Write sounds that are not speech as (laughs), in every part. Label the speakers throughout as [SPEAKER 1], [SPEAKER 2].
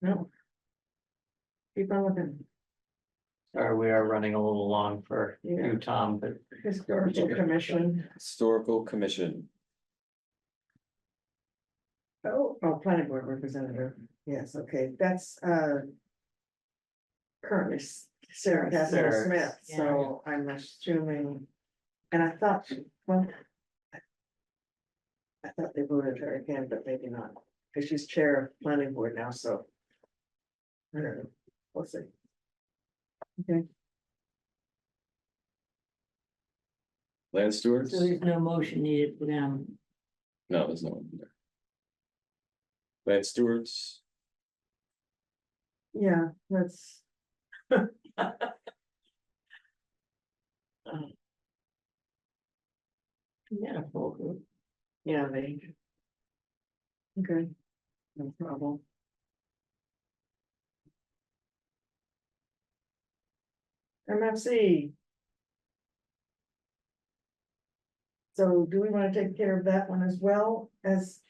[SPEAKER 1] No. Keep on looking,
[SPEAKER 2] Sorry, we are running a little long for
[SPEAKER 1] Yeah.
[SPEAKER 2] you, Tom, but
[SPEAKER 1] historical commission,
[SPEAKER 3] Historical Commission,
[SPEAKER 1] oh, oh, planning board representative, yes, okay, that's, uh. Currently S- Sarah Catherine
[SPEAKER 2] Sarah.
[SPEAKER 1] Smith, so I'm assuming, and I thought, she- well. I- I thought they voted her again, but maybe not, because she's chair of planning board now, so. I don't know, we'll see.
[SPEAKER 3] Land Stewards?
[SPEAKER 4] So there's no motion needed for them.
[SPEAKER 3] No, there's no one there. Land Stewards,
[SPEAKER 1] Yeah, that's.
[SPEAKER 4] Yeah, full group.
[SPEAKER 1] Yeah, they. Okay. No problem. MFC. So do we wanna take care of that one as well as?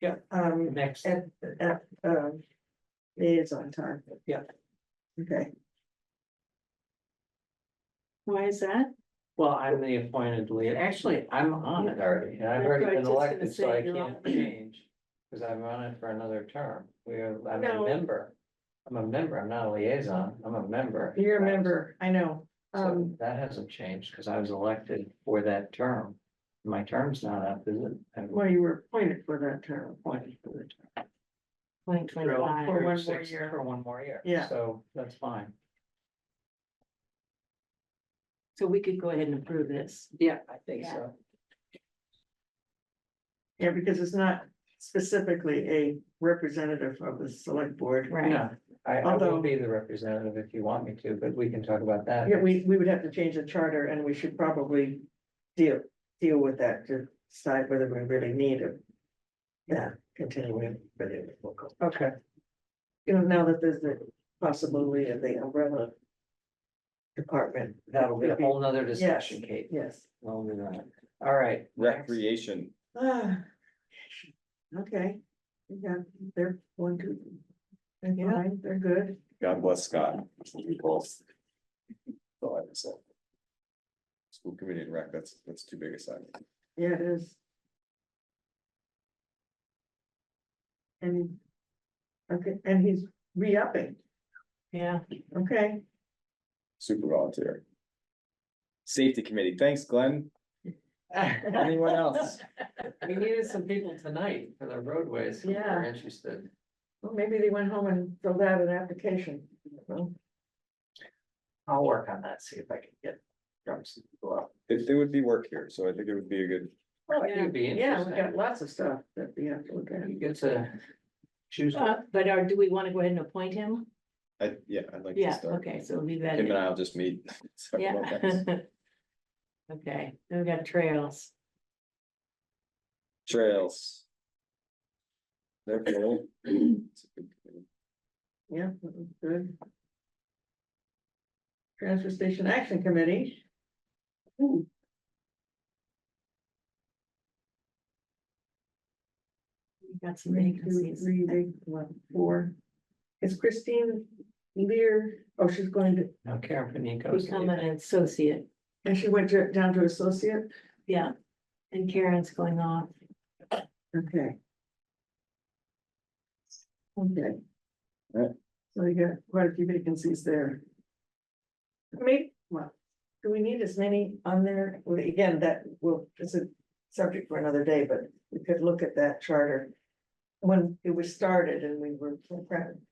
[SPEAKER 2] Yeah.
[SPEAKER 1] Um,
[SPEAKER 2] next,
[SPEAKER 1] at, at, um, liaison time.
[SPEAKER 2] Yeah.
[SPEAKER 1] Okay,
[SPEAKER 4] Why is that?
[SPEAKER 2] well, I'm the appointed lead. Actually, I'm on it already, and I've already
[SPEAKER 4] That's
[SPEAKER 2] been
[SPEAKER 4] what I was
[SPEAKER 2] elected,
[SPEAKER 4] just
[SPEAKER 2] so
[SPEAKER 4] gonna
[SPEAKER 2] I
[SPEAKER 4] say, you're
[SPEAKER 2] can't change. Cause I'm on it for another term. We are, I'm
[SPEAKER 1] No.
[SPEAKER 2] a member. I'm a member. I'm not a liaison. I'm a member.
[SPEAKER 1] you're a member, I know,
[SPEAKER 2] So
[SPEAKER 1] um,
[SPEAKER 2] that hasn't changed, cause I was elected for that term. My term's not up, is it? I'm
[SPEAKER 1] well, you were appointed for that term.
[SPEAKER 2] appointed for the term.
[SPEAKER 4] Twenty
[SPEAKER 2] For
[SPEAKER 4] twenty-five.
[SPEAKER 1] one more
[SPEAKER 2] six-
[SPEAKER 1] year.
[SPEAKER 2] For one more year.
[SPEAKER 1] Yeah.
[SPEAKER 2] So that's fine.
[SPEAKER 4] So we could go ahead and approve this.
[SPEAKER 2] Yeah, I think
[SPEAKER 4] Yeah.
[SPEAKER 2] so.
[SPEAKER 1] Yeah, because it's not specifically a representative of the select board.
[SPEAKER 4] Right.
[SPEAKER 2] No, I, I
[SPEAKER 1] Although-
[SPEAKER 2] will be the representative if you want me to, but we can talk about that.
[SPEAKER 1] Yeah, we, we would have to change the charter and we should probably deal, deal with that to decide whether we really need it. Yeah, continuing, but it will go.
[SPEAKER 2] Okay,
[SPEAKER 1] You know, now that there's the possibility of the umbrella department,
[SPEAKER 2] that'll be a whole nother discussion, Kate.
[SPEAKER 1] yes.
[SPEAKER 2] Well, we're not. All right.
[SPEAKER 3] Recreation,
[SPEAKER 1] Ah, Okay, yeah, they're one, two. They're fine, they're good.
[SPEAKER 3] God bless Scott. We both. Thought it was all. School Committee and Rec, that's, that's too big a sign.
[SPEAKER 1] Yeah, it is. And, okay, and he's re-upping,
[SPEAKER 4] Yeah.
[SPEAKER 1] okay,
[SPEAKER 3] Super volunteer. Safety Committee, thanks Glenn. Anyone else?
[SPEAKER 2] (laughs) We needed some people tonight for the roadways. who
[SPEAKER 1] Yeah.
[SPEAKER 2] are Interested.
[SPEAKER 1] well, maybe they went home and filled out an application. Well,
[SPEAKER 2] I'll work on that, see if I can get. drum some people up.
[SPEAKER 3] If there would be work here, so I think it would be a good,
[SPEAKER 2] I think It'd be
[SPEAKER 1] Yeah, we got
[SPEAKER 2] interesting.
[SPEAKER 1] lots of stuff that we have to look at,
[SPEAKER 2] You get to choose.
[SPEAKER 4] Uh, But are, do we want to go ahead and appoint him?
[SPEAKER 3] I, yeah, I'd like to
[SPEAKER 4] Yeah,
[SPEAKER 3] start.
[SPEAKER 4] okay, so leave that.
[SPEAKER 3] Him and I'll just meet. (laughs) Talk
[SPEAKER 4] Yeah.
[SPEAKER 3] about that.
[SPEAKER 4] (laughs) Okay, then we got trails.
[SPEAKER 3] Trails. They're cool. It's a good committee.
[SPEAKER 1] yeah, that was good. Transfer Station Action Committee. Ooh.
[SPEAKER 4] We got some
[SPEAKER 1] Three, two,
[SPEAKER 4] vacancies.
[SPEAKER 1] three, big, one, four. Is Christine Lear, oh, she's going to,
[SPEAKER 2] Now Karen Panico's.
[SPEAKER 4] Become an associate,
[SPEAKER 1] and she went to, down to associate,
[SPEAKER 4] yeah. And Karen's going off.
[SPEAKER 1] okay. Okay.
[SPEAKER 3] Right.
[SPEAKER 1] So you got quite a few vacancies there. Maybe, well, do we need as many on there? Well, Again, that will, is a subject for another day, but we could look at that charter. When it was started and we were,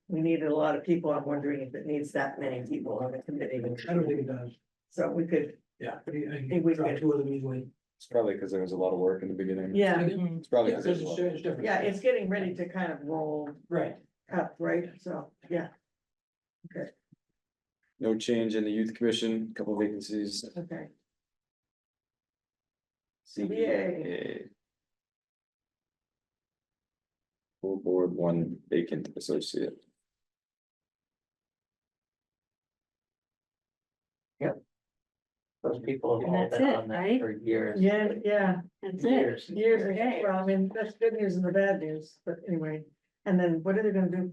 [SPEAKER 1] we needed a lot of people, I'm wondering if it needs that many people on the committee.
[SPEAKER 5] I don't think it does,
[SPEAKER 1] So we could,
[SPEAKER 5] yeah, I think- I
[SPEAKER 1] Think
[SPEAKER 5] think
[SPEAKER 1] we
[SPEAKER 5] we drop
[SPEAKER 1] could-
[SPEAKER 5] two of them easily.
[SPEAKER 3] It's probably because there was a lot of work in the beginning.
[SPEAKER 1] yeah,
[SPEAKER 4] Mhm.
[SPEAKER 3] It's probably
[SPEAKER 5] Yeah,
[SPEAKER 3] because
[SPEAKER 5] there's
[SPEAKER 3] there's a
[SPEAKER 5] a
[SPEAKER 3] lot.
[SPEAKER 5] share, it's different.
[SPEAKER 1] yeah, it's getting ready to kind of roll
[SPEAKER 5] Right,
[SPEAKER 1] up, right? So, yeah,
[SPEAKER 3] No change in the youth commission, couple vacancies.
[SPEAKER 1] okay.
[SPEAKER 3] CBA. Full board, one vacant associate.
[SPEAKER 2] Those people have
[SPEAKER 4] And
[SPEAKER 2] all
[SPEAKER 4] that's
[SPEAKER 2] been
[SPEAKER 4] it,
[SPEAKER 2] on that
[SPEAKER 4] right?
[SPEAKER 2] for years.
[SPEAKER 1] Yeah, yeah,
[SPEAKER 4] That's it.
[SPEAKER 2] Years.
[SPEAKER 1] years,
[SPEAKER 4] Okay.
[SPEAKER 1] well, I mean, that's good news and the bad news, but anyway. And then what are they gonna do